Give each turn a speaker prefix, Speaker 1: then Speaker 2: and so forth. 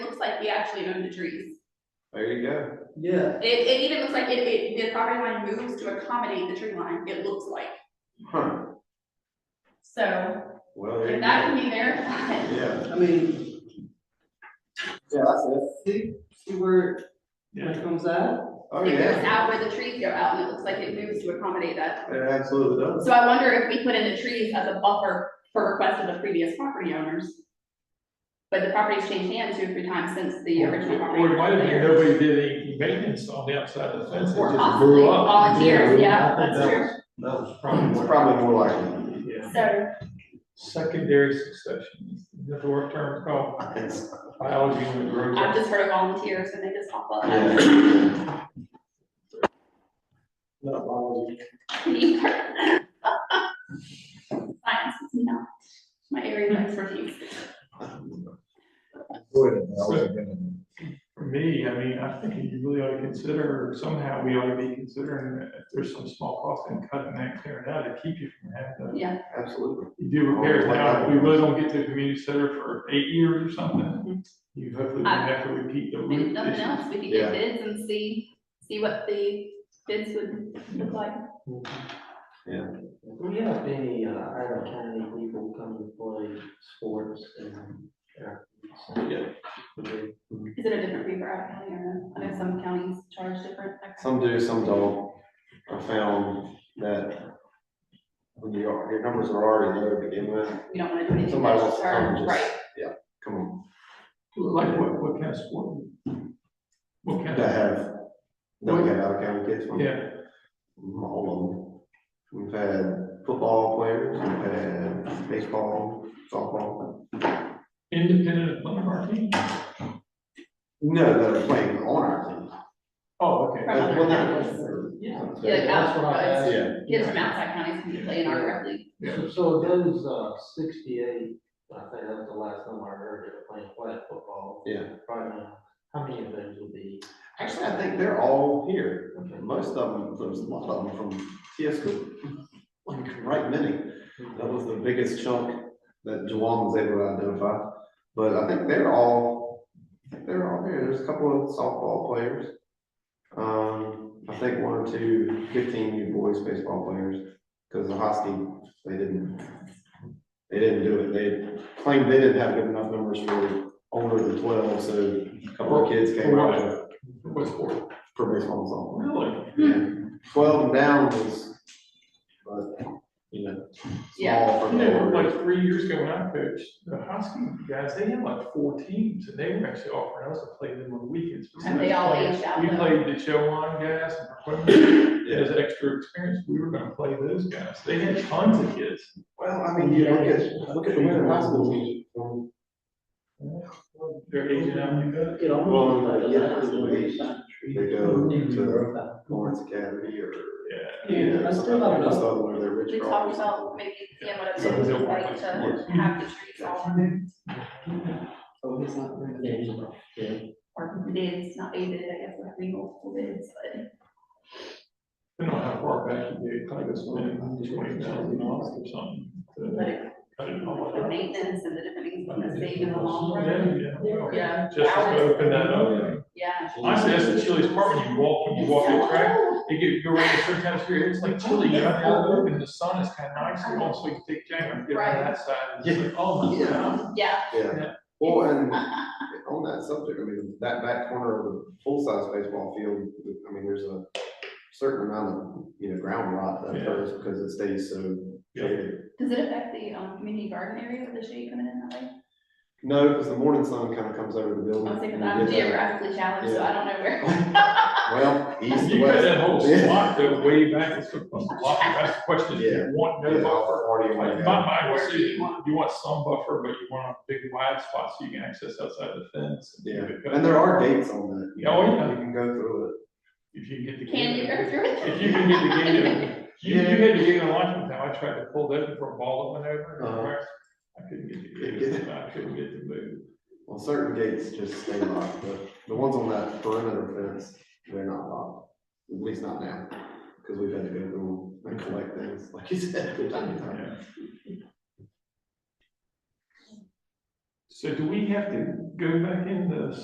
Speaker 1: like we actually own the trees.
Speaker 2: There you go.
Speaker 3: Yeah.
Speaker 1: It, it even looks like it, it, the property line moves to accommodate the tree line, it looks like.
Speaker 2: Huh,
Speaker 1: So
Speaker 2: well, there you
Speaker 1: if
Speaker 2: go.
Speaker 1: that can be verified,
Speaker 2: Yeah,
Speaker 3: I mean. Yeah, that's it. See, see where, where it comes out?
Speaker 2: oh,
Speaker 1: it goes
Speaker 2: yeah,
Speaker 1: out where the trees go out and it looks like it moves to accommodate that.
Speaker 2: it absolutely does.
Speaker 1: So I wonder if we put in the trees as a buffer for requests of the previous property owners. But the property's changed hands two or three times since the original property.
Speaker 4: Or it might have been
Speaker 1: owner.
Speaker 4: nobody did any maintenance on the outside of the fence, it
Speaker 1: Or
Speaker 4: just
Speaker 1: possibly
Speaker 4: grew up.
Speaker 1: volunteers, yeah,
Speaker 2: I think
Speaker 1: that's
Speaker 2: that
Speaker 1: true.
Speaker 2: That was probably. It's probably more likely.
Speaker 4: Yeah.
Speaker 1: So,
Speaker 4: Secondary succession, is the word term called
Speaker 2: It's-
Speaker 4: biology in the group.
Speaker 1: I've just heard of volunteers and they just pop up.
Speaker 2: yeah.
Speaker 4: Not biology.
Speaker 1: Science is not my area of expertise.
Speaker 4: For me, I mean, I think you really ought to consider, somehow we ought to be considering that if there's some small cost in cutting that, clearing out to keep you from having to.
Speaker 1: Yeah,
Speaker 2: Absolutely.
Speaker 4: You do repairs now, if we really don't get to the community center for eight years or something, you hopefully don't have to repeat the
Speaker 1: Mm-hmm. I
Speaker 4: roof
Speaker 1: mean, if nothing
Speaker 4: issue.
Speaker 1: else, we could get
Speaker 2: Yeah.
Speaker 1: bids and see, see what the bids would look like.
Speaker 5: Do we have any, uh, Iron County people come to play sports and?
Speaker 2: Yeah.
Speaker 1: Is it a different fee for out of county or, no? I know some counties charge different.
Speaker 2: Some do, some don't. I found that when you, are- your numbers are already low to begin with,
Speaker 1: We don't wanna do anything
Speaker 2: somebody
Speaker 1: that's
Speaker 2: wants to come
Speaker 1: charged,
Speaker 2: and
Speaker 1: right?
Speaker 2: just, yeah, come on.
Speaker 4: Like what, what kind of sport? What kind
Speaker 2: That
Speaker 4: of,
Speaker 2: have, don't have out of county kids from.
Speaker 4: yeah,
Speaker 2: All of them. We've had football players, we've had baseball, softball.
Speaker 4: independent of one of our teams?
Speaker 2: No, that are playing on our team.
Speaker 4: Oh, okay.
Speaker 1: From other
Speaker 2: Well, not-
Speaker 1: counties.
Speaker 5: Yeah.
Speaker 1: Yeah, like
Speaker 5: That's what I
Speaker 1: out-
Speaker 5: asked.
Speaker 2: Yeah,
Speaker 1: Kids from outside counties can play in our rec league.
Speaker 4: Yeah.
Speaker 5: So- So those, uh, sixty-eight, I think that was the last time I heard they were playing flag football
Speaker 2: yeah.
Speaker 5: right now. How many of those would be?
Speaker 2: Actually, I think they're all here.
Speaker 5: Okay.
Speaker 2: Most of them, there's a lot of them from TS Cooper. Like, right many. That was the biggest chunk that Jawan was able to identify. But I think they're all, I think they're all here. There's a couple of softball players. Um, I think one or two 15 new boys baseball players, because the Hosky, they didn't, they didn't do it. They claimed they didn't have good enough numbers for older than twelve, so a couple of kids came out with
Speaker 4: What sport?
Speaker 2: for baseball
Speaker 4: Really?
Speaker 2: and softball. Yeah. Twelve and down was, but, you know,
Speaker 1: Yeah.
Speaker 2: small for
Speaker 4: You know,
Speaker 2: the.
Speaker 4: like three years ago when I coached, the Husky guys, they had like four teams and they were actually offering us to play them on weekends.
Speaker 1: And they all aged out,
Speaker 4: We
Speaker 1: though.
Speaker 4: played the Chowan guys and Paquin,
Speaker 2: Yeah.
Speaker 4: as an extra experience, we were gonna play those guys. They had tons of kids.
Speaker 2: Well, I mean, you look at, look at the winter high school team. um,
Speaker 4: They're aging out.
Speaker 5: It
Speaker 2: almost Well, like a yeah, last it's one. way. They go to Lawrence Academy or.
Speaker 4: Yeah.
Speaker 2: you know,
Speaker 5: Yeah, I still
Speaker 2: something like
Speaker 5: don't know.
Speaker 2: that, where they're rich
Speaker 1: We
Speaker 2: from.
Speaker 1: talked about maybe, yeah, what it would look like to have the trees all,
Speaker 3: Oh, it's not very good.
Speaker 1: or bids, not a bid, I guess, we have multiple bids, but.
Speaker 4: Depending on how far back you get, kind of goes twenty thousand miles or something.
Speaker 1: But
Speaker 4: to
Speaker 1: it-
Speaker 4: cut it off.
Speaker 1: the maintenance and the different things that are saved in the long run.
Speaker 4: Yeah, yeah, well,
Speaker 1: Yeah.
Speaker 4: Just to
Speaker 1: hours.
Speaker 4: open that up.
Speaker 1: Yeah.
Speaker 4: I said, that's the chilliest part when you walk, when you walk the track, you get, you go around the certain times of year, it's like chilly, you have to open, the sun is kind of nice, you also you take jacket, and get on that side, and it's like, oh my god.
Speaker 1: Yeah.
Speaker 2: Yeah. Well, and on that subject, I mean, that back corner of the full-size baseball field, I mean, there's a certain amount of, you know, ground rot that
Speaker 4: Yeah.
Speaker 2: occurs because it stays so
Speaker 4: Yeah.
Speaker 2: shaded.
Speaker 1: Does it affect the, um, community garden area with the shade coming in that way?
Speaker 2: No, because the morning sun kind of comes over the building.
Speaker 1: I'm thinking
Speaker 2: and
Speaker 1: I'm
Speaker 2: you get that-
Speaker 1: geographically challenged, so I don't know where.
Speaker 2: Well, east to
Speaker 4: You cut that whole
Speaker 2: west. Yeah.
Speaker 4: slot though way back, it's a block, that's the question, if you want no
Speaker 2: Yeah,
Speaker 4: buffer.
Speaker 2: already
Speaker 4: Like,
Speaker 2: like
Speaker 4: in
Speaker 2: that.
Speaker 4: my mind, was you want, you want some buffer, but you want a big wide spot so you can access outside the fence.
Speaker 2: Yeah, and there are gates on that. you
Speaker 4: Yeah, oh,
Speaker 2: know,
Speaker 4: yeah.
Speaker 2: You can go through it.
Speaker 4: If you get the.
Speaker 1: Can you go through it?
Speaker 4: If you can get the gate, open. you, you had to get in line from time, I tried to pull that before a ball went
Speaker 2: Uh-huh.
Speaker 4: over. I couldn't get the gate, open. I couldn't get the move.
Speaker 2: Well, certain gates just stay locked, but the ones on that perimeter fence, they're not locked, at least not now. Because we've had to go through and collect things, like you said. from time to time.
Speaker 4: So do we have to go back in the